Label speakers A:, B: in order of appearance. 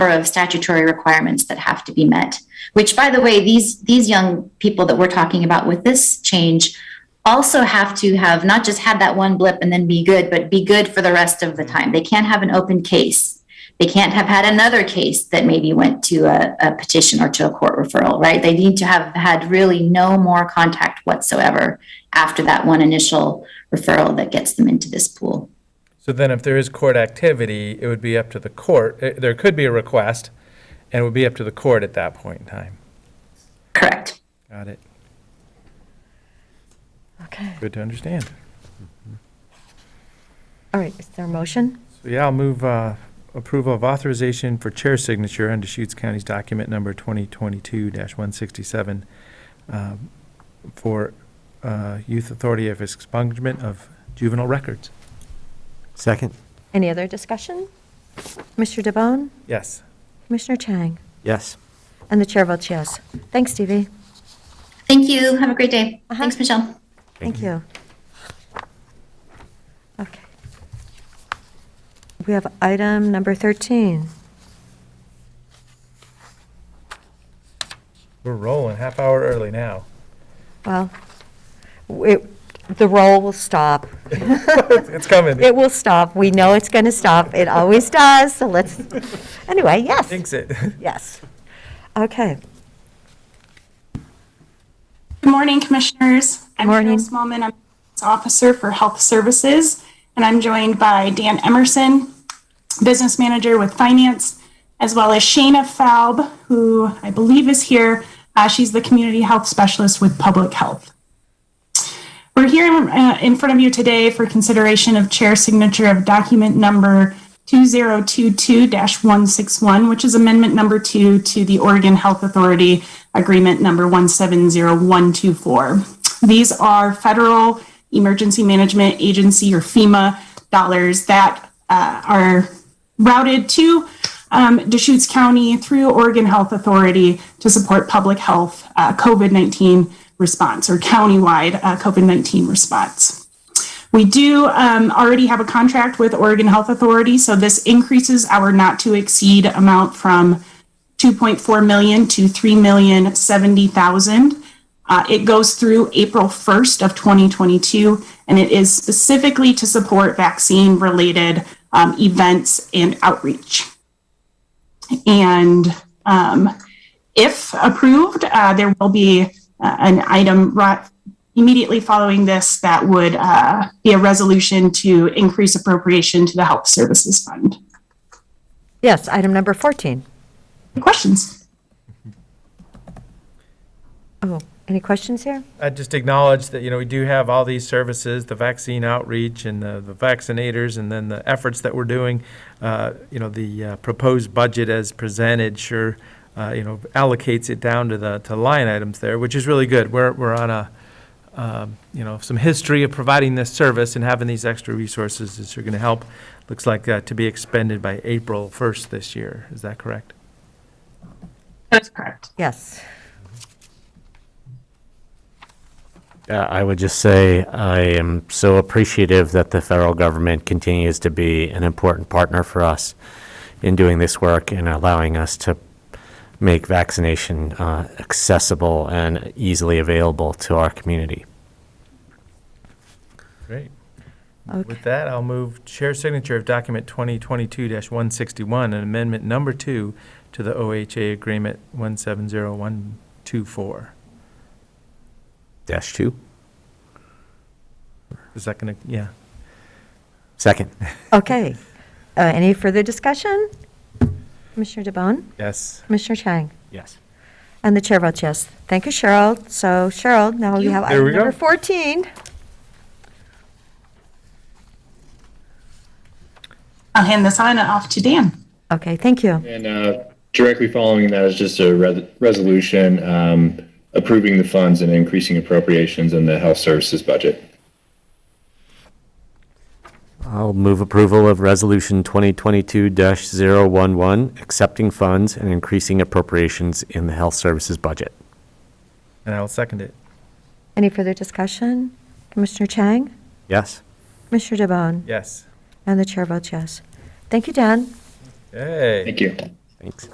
A: of statutory requirements that have to be met. Which, by the way, these, these young people that we're talking about with this change also have to have not just had that one blip and then be good, but be good for the rest of the time. They can't have an open case. They can't have had another case that maybe went to a, a petition or to a court referral, right? They need to have had really no more contact whatsoever after that one initial referral that gets them into this pool.
B: So then if there is court activity, it would be up to the court. Eh, There could be a request, and it would be up to the court at that point in time.
A: Correct.
B: Got it.
C: Okay,
B: Good to understand.
C: all right, is there a motion?
B: So yeah, I'll move uh, approval of authorization for chair signature under Deschutes County's document number 2022-167 um, for uh, Youth Authority of Expungement of Juvenile Records.
D: Second?
C: Any other discussion? Mr. DeBonne,
B: Yes.
C: Commissioner Chang,
D: Yes.
C: and the chair votes yes. Thanks, Stevie.
A: Thank you. Have a great day.
C: Uh-huh.
A: Thanks, Michelle.
C: Thank you. Okay. We have item number 13.
B: We're rolling half hour early now.
C: Well, it- the roll will stop.
B: It's coming.
C: It will stop. We know it's going to stop. It always does, so let's, anyway, yes,
B: Thinks it.
C: yes. Okay.
E: Good morning, Commissioners. I'm
C: Morning.
E: Cheryl Smallman. I'm Health Officer for Health Services, and I'm joined by Dan Emerson, Business Manager with Finance, as well as Shayna Faub, who I believe is here. Uh, She's the Community Health Specialist with Public Health. We're here uh, in front of you today for consideration of chair signature of document number 2022-161, which is amendment number two to the Oregon Health Authority Agreement number 170124. These are federal emergency management agency or FEMA dollars that uh, are routed to um, Deschutes County through Oregon Health Authority to support public health uh, COVID 19 response or countywide uh, COVID 19 response. We do um, already have a contract with Oregon Health Authority, so this increases our not to exceed amount from 2.4 million to 3,070,000. Uh, it goes through April 1st of 2022, and it is specifically to support vaccine-related um, events and outreach. And um, if approved, uh, there will be uh, an item right immediately following this that would uh, be a resolution to increase appropriation to the Health Services Fund.
C: Yes, item number 14.
E: Questions?
C: Oh, any questions here?
B: I just acknowledge that, you know, we do have all these services, the vaccine outreach and the the vaccinators, and then the efforts that we're doing. Uh, You know, the uh, proposed budget as presented sure, uh, you know, allocates it down to the, to line items there, which is really good. We're, we're on a, um, you know, some history of providing this service and having these extra resources is going to help. Looks like uh, to be expended by April 1st this year. Is that correct?
E: That's correct.
C: Yes.
F: Uh, I would just say I am so appreciative that the federal government continues to be an important partner for us in doing this work and allowing us to make vaccination uh, accessible and easily available to our community.
B: Great. With that, I'll move chair signature of document 2022-161 and amendment number two to the OHA agreement 170124.
F: Dash two?
B: Is that going to, yeah.
F: Second.
C: Okay. Uh, Any further discussion? Commissioner DeBonne,
B: Yes.
C: Commissioner Chang,
F: Yes.
C: and the chair votes yes. Thank you, Cheryl. So Cheryl, now we have
B: There we
C: item number
B: go.
C: 14.
E: I'll hand this on and off to Dan.
C: Okay, thank you.
G: And uh, directly following that is just a re- resolution um, approving the funds and increasing appropriations in the health services budget.
F: I'll move approval of Resolution 2022-011, accepting funds and increasing appropriations in the health services budget.
B: And I'll second it.
C: Any further discussion? Commissioner Chang,
F: Yes?
C: Commissioner DeBonne,
B: Yes.
C: and the chair votes yes. Thank you, Dan.
B: Hey.
G: Thank you.
F: Thanks.